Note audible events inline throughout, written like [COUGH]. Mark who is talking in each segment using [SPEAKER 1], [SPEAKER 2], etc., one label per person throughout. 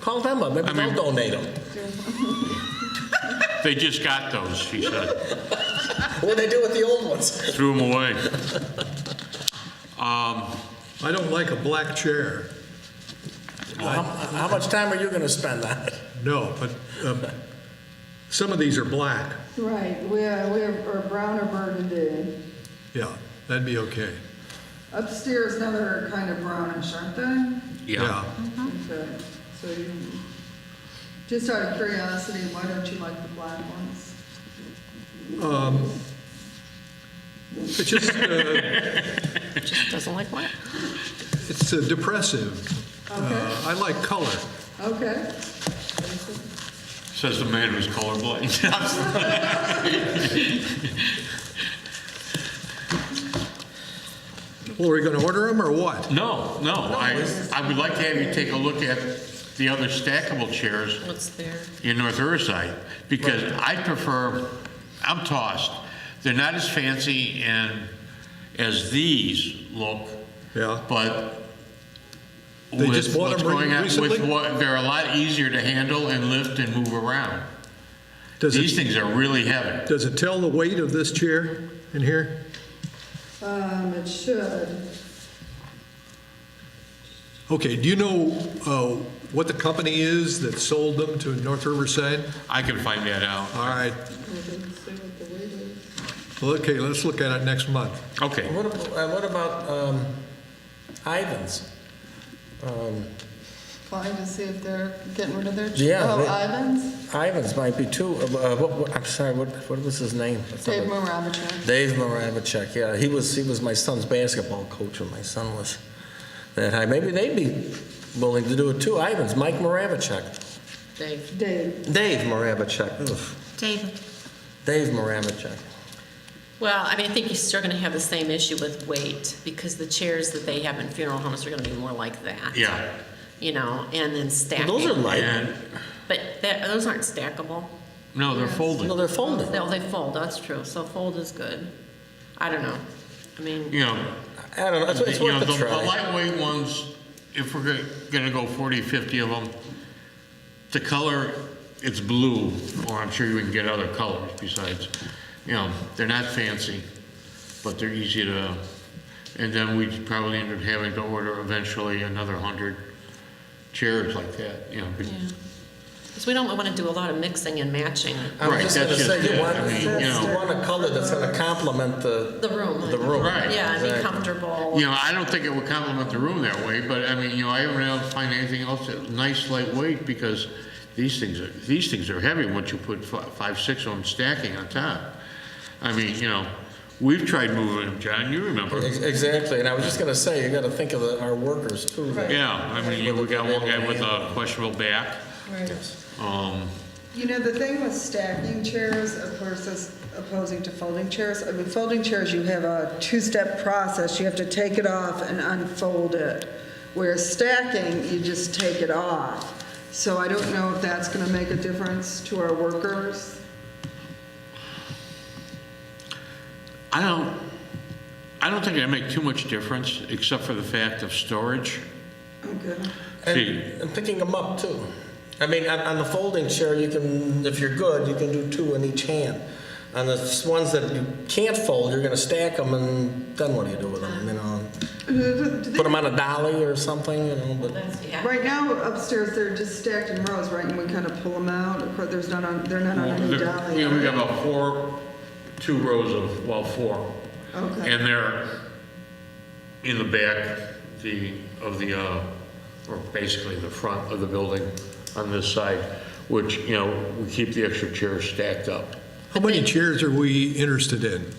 [SPEAKER 1] Call them up, maybe
[SPEAKER 2] I mean-
[SPEAKER 1] they'll donate them.
[SPEAKER 2] They just got those, she said.
[SPEAKER 1] What'd they do with the old ones?
[SPEAKER 2] Threw them away.
[SPEAKER 3] I don't like a black chair,
[SPEAKER 1] How how much time are you going to spend on it?
[SPEAKER 3] no, but um, some of these are black.
[SPEAKER 4] Right, we're, we're or brown or burgundy.
[SPEAKER 3] Yeah, that'd be okay.
[SPEAKER 4] Upstairs, now they're kind of brownish, aren't they?
[SPEAKER 2] Yeah.
[SPEAKER 4] Okay, so you, just out of curiosity, why don't you like the black ones?
[SPEAKER 3] It's just, uh,
[SPEAKER 5] Doesn't like what?
[SPEAKER 3] it's uh, depressive. Uh, I like color.
[SPEAKER 4] Uh. Okay.
[SPEAKER 2] Says the man who's colorblind. [LAUGHS]
[SPEAKER 3] Well, are we going to order them or what?
[SPEAKER 2] No, no, I, I would like to have you take a look at the other stackable chairs
[SPEAKER 5] What's there?
[SPEAKER 2] in North Riverside, because I prefer, I'm tossed. They're not as fancy and, as these look.
[SPEAKER 3] Yeah.
[SPEAKER 2] But
[SPEAKER 3] They just
[SPEAKER 2] with
[SPEAKER 3] bought
[SPEAKER 2] what's
[SPEAKER 3] them re-
[SPEAKER 2] going on,
[SPEAKER 3] recently?
[SPEAKER 2] with what, they're a lot easier to handle and lift and move around.
[SPEAKER 3] Does
[SPEAKER 2] These
[SPEAKER 3] it,
[SPEAKER 2] things are really heavy.
[SPEAKER 3] does it tell the weight of this chair in here?
[SPEAKER 4] Um, it should.
[SPEAKER 3] Okay, do you know uh, what the company is that sold them to North Riverside?
[SPEAKER 2] I can find that out.
[SPEAKER 3] All right, well, okay, let's look at it next month.
[SPEAKER 2] Okay.
[SPEAKER 1] What ab- uh, what about um, Ivan's?
[SPEAKER 4] Trying to see if they're getting rid of their.
[SPEAKER 1] Yeah,
[SPEAKER 4] Oh,
[SPEAKER 1] they-
[SPEAKER 4] Ivan's,
[SPEAKER 1] Ivan's might be too, uh, uh, what- what- I'm sorry, what what was his name?
[SPEAKER 4] Dave Maravich.
[SPEAKER 1] Dave Maravich, yeah, he was, he was my son's basketball coach when my son was that high. Maybe they'd be willing to do it too. Ivan's, Mike Maravich.
[SPEAKER 5] Dave.
[SPEAKER 4] Dave,
[SPEAKER 1] Dave Maravich.
[SPEAKER 5] Dave.
[SPEAKER 1] Dave Maravich.
[SPEAKER 5] Well, I mean, I think you're still going to have the same issue with weight because the chairs that they have in funeral homes are going to be more like that.
[SPEAKER 2] Yeah.
[SPEAKER 5] You know, and then stacking.
[SPEAKER 1] Those are light.
[SPEAKER 2] And,
[SPEAKER 5] But that, those aren't stackable.
[SPEAKER 2] no, they're folded.
[SPEAKER 1] No, they're folded.
[SPEAKER 5] No, they fold, that's true. So fold is good. I don't know. I mean,
[SPEAKER 2] You know,
[SPEAKER 1] I don't know, it's it's
[SPEAKER 2] you know,
[SPEAKER 1] worth
[SPEAKER 2] the
[SPEAKER 1] a
[SPEAKER 2] the
[SPEAKER 1] try.
[SPEAKER 2] lightweight ones, if we're go- gonna go 40, 50 of them, the color, it's blue, or I'm sure you can get other colors besides, you know, they're not fancy, but they're easy to, and then we'd probably end up having to order eventually another 100 chairs like that, you know. be-
[SPEAKER 5] yeah. Because we don't want to do a lot of mixing and matching.
[SPEAKER 1] I was
[SPEAKER 2] Right,
[SPEAKER 1] just gonna
[SPEAKER 2] that's
[SPEAKER 1] say,
[SPEAKER 2] just
[SPEAKER 1] you
[SPEAKER 2] it.
[SPEAKER 1] want,
[SPEAKER 2] I mean, you
[SPEAKER 1] you
[SPEAKER 2] know.
[SPEAKER 1] want a color that's gonna complement the.
[SPEAKER 5] The room.
[SPEAKER 1] The room.
[SPEAKER 2] Right.
[SPEAKER 5] Yeah, and be
[SPEAKER 1] Exactly.
[SPEAKER 5] comfortable.
[SPEAKER 2] You know, I don't think it would complement the room that way, but I mean, you know, I haven't been able to find anything else that's nice lightweight because these things are, these things are heavy once you put fi- five, six of them stacking on top. I mean, you know, we've tried moving them, John, you remember.
[SPEAKER 1] Ex- Exactly, and I was just gonna say, you gotta think of the- our workers too. that-
[SPEAKER 2] Yeah, I mean, you know, we got one guy with a questionable back. Um,
[SPEAKER 6] You know, the thing with stacking chairs, of course, is opposing to folding chairs. I mean, folding chairs, you have a two-step process. You have to take it off and unfold it. Whereas stacking, you just take it off. So I don't know if that's going to make a difference to our workers.
[SPEAKER 2] I don't, I don't think it'd make too much difference, except for the fact of storage.
[SPEAKER 6] Okay.
[SPEAKER 2] See,
[SPEAKER 1] And, and picking them up too. I mean, on, on the folding chair, you can, if you're good, you can do two in each hand. On the s- ones that you can't fold, you're gonna stack them and then what do you do with them, you know? Put them on a dolly or something, you know, but.
[SPEAKER 5] That's- yeah.
[SPEAKER 6] Right now upstairs, they're just stacked in rows, right? And we kind of pull them out. Of course, there's not on, they're not on any
[SPEAKER 2] There-
[SPEAKER 6] dolly.
[SPEAKER 2] You know, we got about four, two rows of, well, four.
[SPEAKER 6] Okay.
[SPEAKER 2] And they're in the back, the, of the, uh, or basically the front of the building on this side, which, you know, we keep the extra chairs stacked up.
[SPEAKER 3] How many chairs are we interested in? Do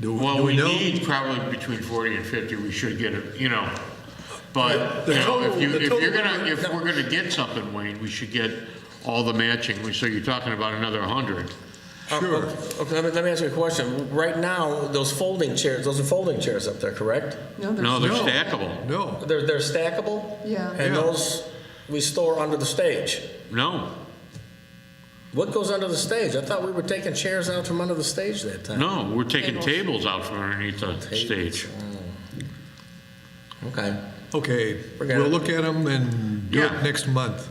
[SPEAKER 3] do
[SPEAKER 2] Well, we
[SPEAKER 3] know?
[SPEAKER 2] need probably between 40 and 50, we should get it, you know, but,
[SPEAKER 3] The
[SPEAKER 2] you know, if
[SPEAKER 3] total-
[SPEAKER 2] you,
[SPEAKER 3] the
[SPEAKER 2] if you're
[SPEAKER 3] total-
[SPEAKER 2] gonna, if we're gonna get something, Wayne, we should get all the matching, We so you're talking about another 100.
[SPEAKER 3] Sure.
[SPEAKER 1] Oh, Okay, let me, let me ask you a question. Right now, those folding chairs, those are folding chairs up there, correct?
[SPEAKER 4] there's-
[SPEAKER 2] No, they're
[SPEAKER 3] No.
[SPEAKER 2] stackable.
[SPEAKER 3] No,
[SPEAKER 1] They're, they're stackable?
[SPEAKER 4] Yeah.
[SPEAKER 1] And
[SPEAKER 3] Yeah.
[SPEAKER 1] those we store under the stage.
[SPEAKER 2] No,
[SPEAKER 1] What goes under the stage? I thought we were taking chairs out from under the stage that time.
[SPEAKER 2] No, we're taking tables out from underneath the stage.
[SPEAKER 1] Okay.
[SPEAKER 3] okay,
[SPEAKER 1] Forget it.
[SPEAKER 3] we'll look at them and do
[SPEAKER 2] Yeah.
[SPEAKER 3] it next month.